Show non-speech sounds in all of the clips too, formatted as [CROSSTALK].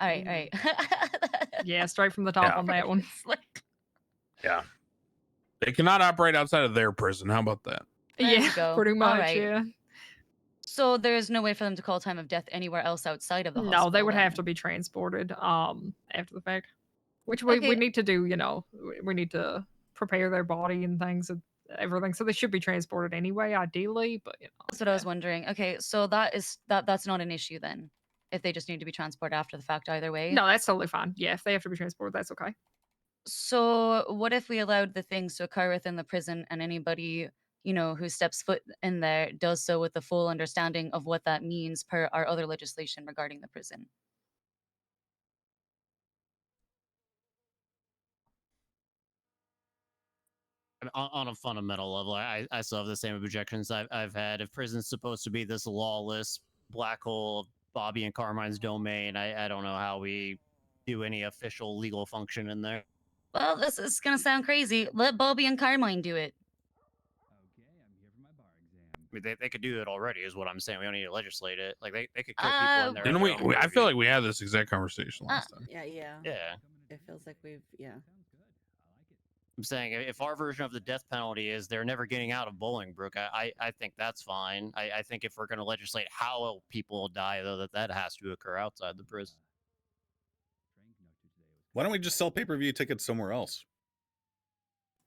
Right, Mm. right. [LAUGHS] Yeah, straight from the top Yeah. on that one. It's like, They cannot operate outside of their prison. How about that? There you yeah, go. pretty All much. right. Yeah. so there is no way for them to call time of death anywhere else outside of the hospital. No, they would have then. to be transported um after the fact, which we, Okay. we need to do. You know, we- we need to prepare their body and things and everything. So they should be transported anyway, ideally. But you know, That's what I was wondering. Okay, so that is that. That's not an issue then, if they just need to be transported after the fact either way. no, that's totally fine. Yeah, if they have to be transported, that's okay. So what if we allowed the things to occur within the prison, and anybody you know who steps foot in there does so with the full understanding of what that means per our other legislation regarding the prison? And on, on a fundamental level, I, I still have the same objections I've, I've had. If prison's supposed to be this lawless black hole of Bobby and Carmine's domain, I, I don't know how we do any official legal function in there. Well, this is gonna sound crazy. Let Bobby and Carmine do it. Okay, I'm here for my bar exam. I mean, they, they could do it already, is what I'm saying. We don't need to legislate it. Like, they, they could kill people Uh, in there. Didn't we, we? I feel like we had this exact conversation Uh, last time. Yeah, yeah. Yeah. It feels like we've yeah. Sounds good. I like it. I'm saying i- if our version of the death penalty is they're never getting out of Bolingbrook, I, I, I think that's fine. I, I think if we're going to legislate how people die, though, that that has to occur outside the prison. Train conductor today was Why don't we just sell pay per view tickets somewhere else?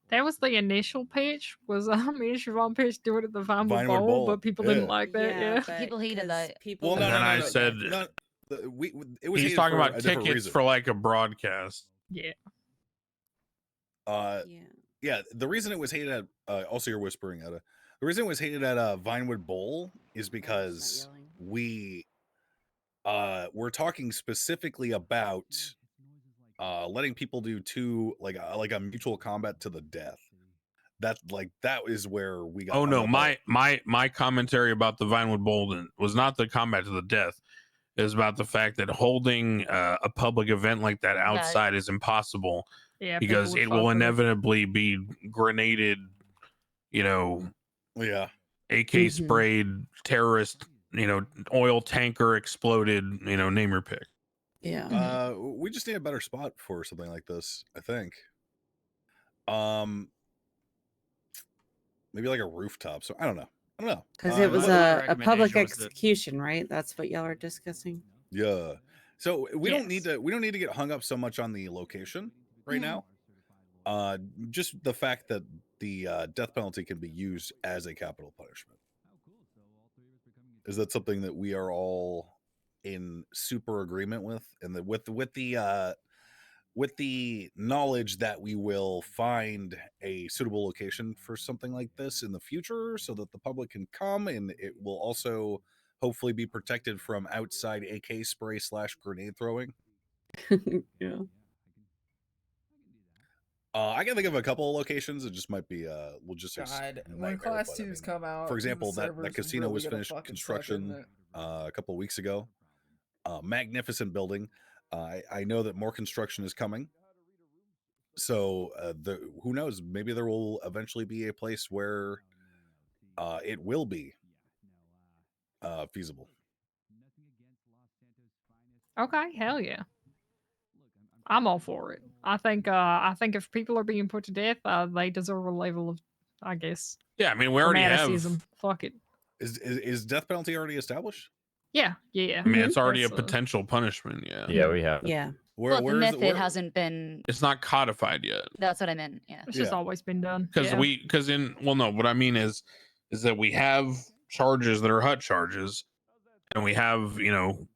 That was the initial pitch. Was [LAUGHS] I mean, Siobhan pitch do it at the Vinewood Vinewood Bowl, Bowl, but people yeah. didn't like that. Yeah. [LAUGHS] but People hated 'cause that. People Well, And no, then no, no, I no, [LAUGHS] said- no, the- we, it was He's hated talking for about a different tickets reason. for like a broadcast. yeah. Uh, yeah. yeah, the reason it was hated at uh, also you're whispering at a. The reason it was hated at uh, Vinewood Bowl Sorry, is I'm just because not yelling. we uh we're talking specifically about uh letting people do two like a, like a mutual combat to the death. That like that is where we got. Oh hung up no, on. my my my commentary about the Vinewood Bolden was not the combat to the death. It was about the fact that holding uh, a public event like that outside is impossible Yeah. people because would it fuck will with inevitably be grenaded, you know, yeah Mhm. AK Mm-hmm. sprayed, terrorist, you know, oil tanker exploded, you know, name your pick. Yeah. Mhm. uh we just need a better spot for something like this. I think. Um, maybe like a rooftop. So I don't know. I don't know. Because Uh, it was what- my- my a, a public recommendation was that- execution, right? That's what y'all are discussing. [LAUGHS] Yeah. So we don't need Yes. to we don't need to get hung up so much on the location right Mhm. now. Uh just the fact that the uh, death penalty can be used as a capital punishment. Is that something that we are all in super agreement with and that with with the uh with the knowledge that we will find a suitable location for something like this in the future so that the public can come and it will also hopefully be protected from outside AK spray slash grenade throwing. yeah. Uh, I can think of a couple of locations. It just might be uh logistics. God, when nightmare, class but I twos mean, come out, for the example, that, servers that casino really was gonna finished fucking suck, construction isn't it? uh, a couple of weeks ago. Uh, magnificent building. Uh, I, I know that more construction is coming. So uh, the who knows? Maybe there will eventually be a place where uh, it will be uh, feasible. Okay, hell yeah. I'm all for it. I think uh I think if people are being put to death, uh, they deserve a level of I guess Yeah, I mean, we already have. fanaticism. Fuck it. Is, is is death penalty already established? Yeah, yeah. I mean, it's already a That's, uh, potential punishment. Yeah, Yeah, we have. Yeah. Where, Well, the is- method where- hasn't been. it's not codified yet That's what I meant. Yeah. It's just Yeah. always been done. because yeah. we because in well, no, what I mean is is that we have charges that are hut charges, and we have you know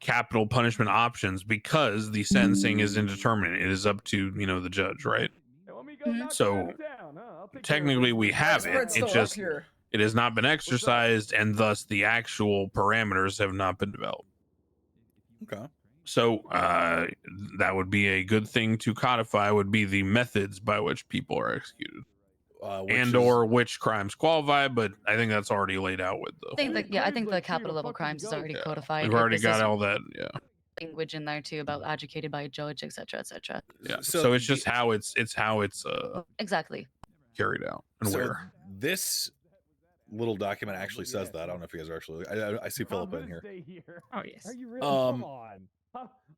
capital punishment options because the sentencing is indeterminate. It is up to you know the judge, right? So technically, we have it. Spread's still It's up just here. it has not been exercised, and thus the actual parameters have not been developed. Okay. So uh, that would be a good thing to codify. Would be the methods by which people are executed, Uh, which and is- or which crimes qualify. But I think that's already laid out with I the. think the, yeah, I think the capital level crimes is already Yeah, codified. We've like, already this got is all that. Yeah. language in there too about adjudicated by a judge, etc., etc. Yeah. So, So it's the- just how it's it's how it's uh Exactly. carried out and So where. this little document actually says that. I don't know if you guys are actually. I, I, I see Philip in here. Oh yes. Um, I'm,